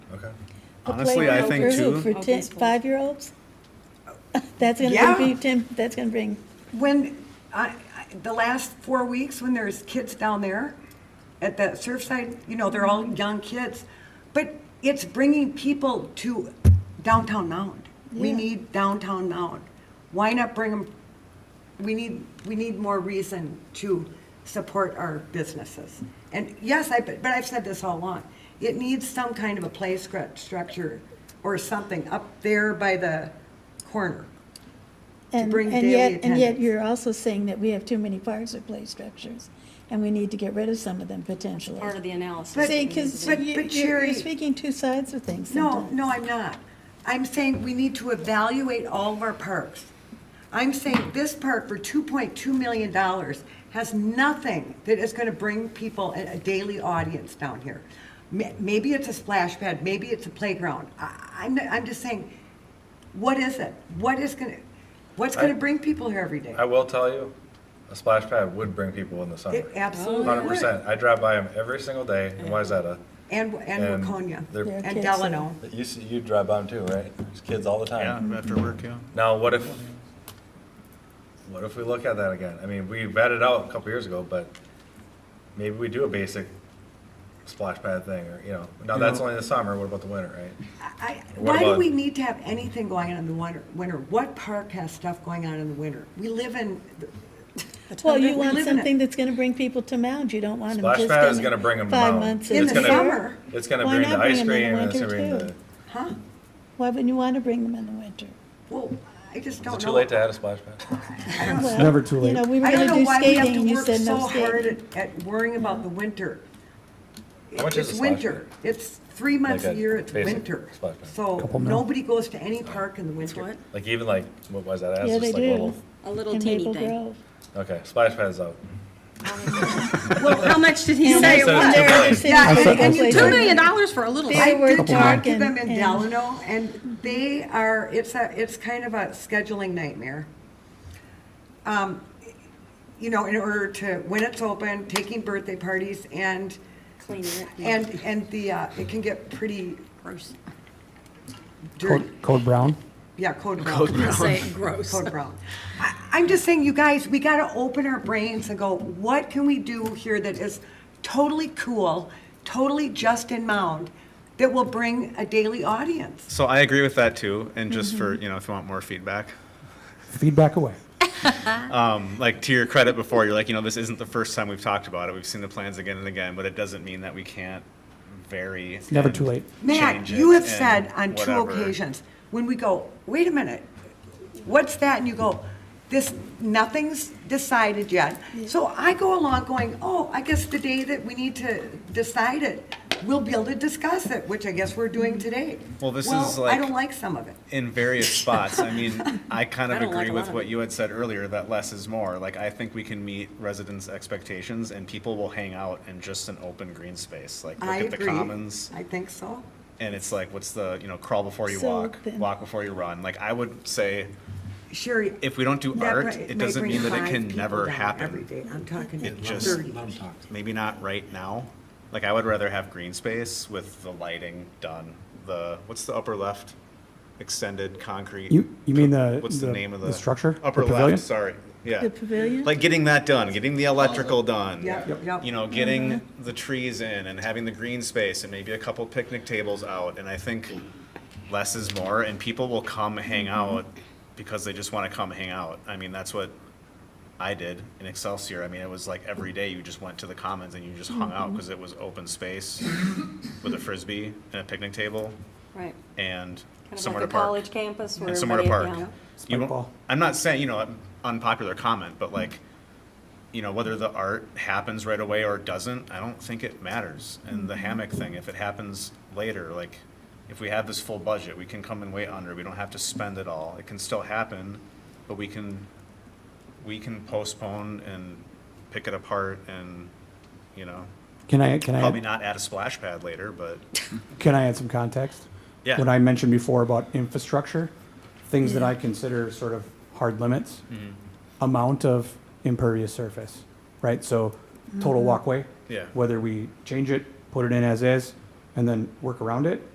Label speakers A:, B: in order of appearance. A: Okay.
B: The
C: Honestly, I think
B: playground
C: too.
B: For ten, five-year-olds? That's
D: Yeah.
B: gonna be, ten, that's gonna bring,
D: When, I, I- the last four weeks, when there's kids down there at that Surfside, you know, they're all young kids, but it's bringing people to downtown Mound. We
B: Yeah.
D: need downtown Mound. Why not bring them, we need, we need more reason to support our businesses. And yes, I, but I've said this all along, it needs some kind of a play scr- structure or something up there by the corner.
B: and,
D: bring
B: and
D: daily
B: yet, and yet
D: attendance.
B: you're also saying that we have too many parks or play structures, and we need to get rid of some of them potentially.
E: part of the analysis. that
B: See,
E: we need to
B: because
E: do.
D: but-
B: you're,
D: but Sherry-
B: you're speaking two sides of things
D: No,
B: sometimes.
D: no, I'm not. I'm saying we need to evaluate all of our parks. I'm saying this park for two point two million dollars has nothing that is gonna bring people, a a daily audience down here. Ma- Maybe it's a splash pad, maybe it's a playground. I, I'm, I'm just saying, what is it? What is gonna, what's gonna bring people here every day?
A: I will tell you, a splash pad would bring people in the summer.
D: It absolutely
A: Hundred
D: would.
A: percent. I drive by them every single day in Wayzata.
D: And, and Waconia,
A: they're-
B: Yeah.
D: and
B: Kids.
D: Delano.
A: You see, you drive by them too, right? There's kids all the time.
C: Yeah, after work, yeah.
A: Now, what if, what if we look at that again? I mean, we vetted out a couple years ago, but maybe we do a basic splash pad thing, or, you know, now that's only the summer, what about the winter, right?
D: I,
A: What
D: why do
A: about-
D: we need to have anything going on in the winter? Winter, what park has stuff going on in the winter? We live in,
B: Well,
D: we
B: you want
D: live in it.
B: something that's gonna bring people to Mound, you don't want them
A: Splash
B: just.
A: pad is
B: in
A: gonna bring 'em to
B: Five
A: Mound.
B: months.
D: In
B: in
D: the
B: the
D: summer.
B: year.
A: It's gonna
B: Why
A: bring the
B: not
A: ice
B: bring 'em
A: cream,
B: in the
A: and it's gonna
B: winter,
A: bring the,
B: too?
D: huh?
B: Why wouldn't you wanna bring them in the winter?
D: Well, I just
A: is it
D: don't know.
A: too late to add a splash pad?
B: Well,
F: never too
B: You
F: late.
B: know, we were
D: I don't
B: gonna
D: know
B: do
D: why we have
B: skating, and
D: to
B: you
D: work
B: said
D: so
B: no
D: hard
B: skating.
D: at, at worrying about the winter.
A: How much is a
D: It's
A: splash
D: winter. It's three months a
A: a
D: year, it's
A: basic
D: winter.
A: splash pad.
D: So
F: mil.
D: nobody goes to any park in the winter.
E: What?
A: Like even like, what was that,
B: Yeah,
A: it's
B: they
A: just like a
B: do.
A: little,
E: A little
B: in
E: teeny
B: Maple
E: thing.
B: Grove.
A: okay, splash pad is out.
E: Well, how much did he say it
A: said
E: was?
A: it's
B: There are
A: Yeah,
B: cities
D: and-
B: that
D: and
B: have
D: you
B: places
D: took
E: Two
B: like
E: million
B: that.
E: dollars for a little.
B: They
D: I
B: were
D: did talk to
B: talking
D: them in
B: and-
D: Delano, and they are, it's a, it's kind of a scheduling nightmare. Um, You know, in order to, when it's open, taking birthday parties, and,
E: Cleaning it.
D: and, and the, uh, it can get pretty
E: Gross.
D: dirty.
F: Code, code brown.
D: Yeah, code brown. Code
E: I'll say it, gross.
D: Code brown. I- I'm just saying, you guys, we gotta open our brains and go, what can we do here that is totally cool, totally just in mound, that will bring a daily audience?
G: So I agree with that too, and just for
D: Mm-hmm.
G: you know, if you want more feedback,
F: Feedback away.
G: like to your credit before, you're like, you know, this isn't the first time we've talked about it. We've seen the plans again and again, but it doesn't mean that we can't vary. It's
F: never too late.
D: Matt, you have said on two occasions, when we go, wait a minute, what's that? And you go, this, nothing's decided yet. So I go along going, oh, I guess the day that we need to decide it, we'll be able to discuss it, which I guess we're doing today.
G: Well, this is
D: Well, I
G: like-
D: don't like some of it.
G: in various spots. I mean, I kind
E: I
G: of
E: don't like
G: agree
E: a lot
G: with
E: of
G: what
E: it.
G: you had said earlier that less is more. Like, I think we can meet residents' expectations, and people will hang out in just an open green space. Like, look
D: I
G: at
D: agree.
G: the commons.
D: I think so.
G: and it's like what's the you know crawl before you
B: So
G: walk
B: then-
G: walk before you run like i would say
D: Sherry.
G: if we don't do
D: that
G: art
D: might-
G: it
D: might
G: doesn't
D: bring
G: mean that
D: five
G: it can
D: people
G: never
D: down Every
G: happen
D: day, I'm talking
G: It just-
D: 30.
G: maybe not right now like i would rather have green space with the lighting done the what's the upper left extended concrete
F: You, you mean the,
G: what's the, name of the,
F: structure? The
G: upper
F: pavilion?
G: left sorry yeah
B: The pavilion?
G: like getting that done getting the
E: Oh,
G: electrical done
D: Yep, Yep. yep.
G: you know getting
E: Mm-hmm.
G: the trees in and having the green space and maybe a couple picnic tables out and i think less is more and people will come hang
E: Mm-hmm.
G: out because they just want to come hang out i mean that's what i did in excelsior i mean it was like every day you just went to the commons and you just hung
E: Mm-hmm.
G: out because it was open space with a frisbee and a picnic table
E: Right.
G: and
E: Kind of
G: somewhere
E: like a
G: to park
E: college campus where
G: and somewhere
E: everybody.
G: to park.
E: you know,
G: You won't-
F: ball.
G: I'm not saying, you know, an unpopular comment, but like, you know, whether the art happens right away or doesn't, I don't think it matters. And the hammock thing, if it happens later, like, if we have this full budget, we can come and wait under, we don't have to spend it all. It can still happen, but we can, we can postpone and pick it apart and, you know,
F: Can I, can I?
G: probably not add a splash pad later, but
F: Can I add some context?
G: Yeah.
F: What I mentioned before about infrastructure, things that I consider sort of hard limits,
G: Mm-hmm.
F: amount of impervious surface, right? So total walkway.
G: Yeah.
F: Whether we change it, put it in as is, and then work around it,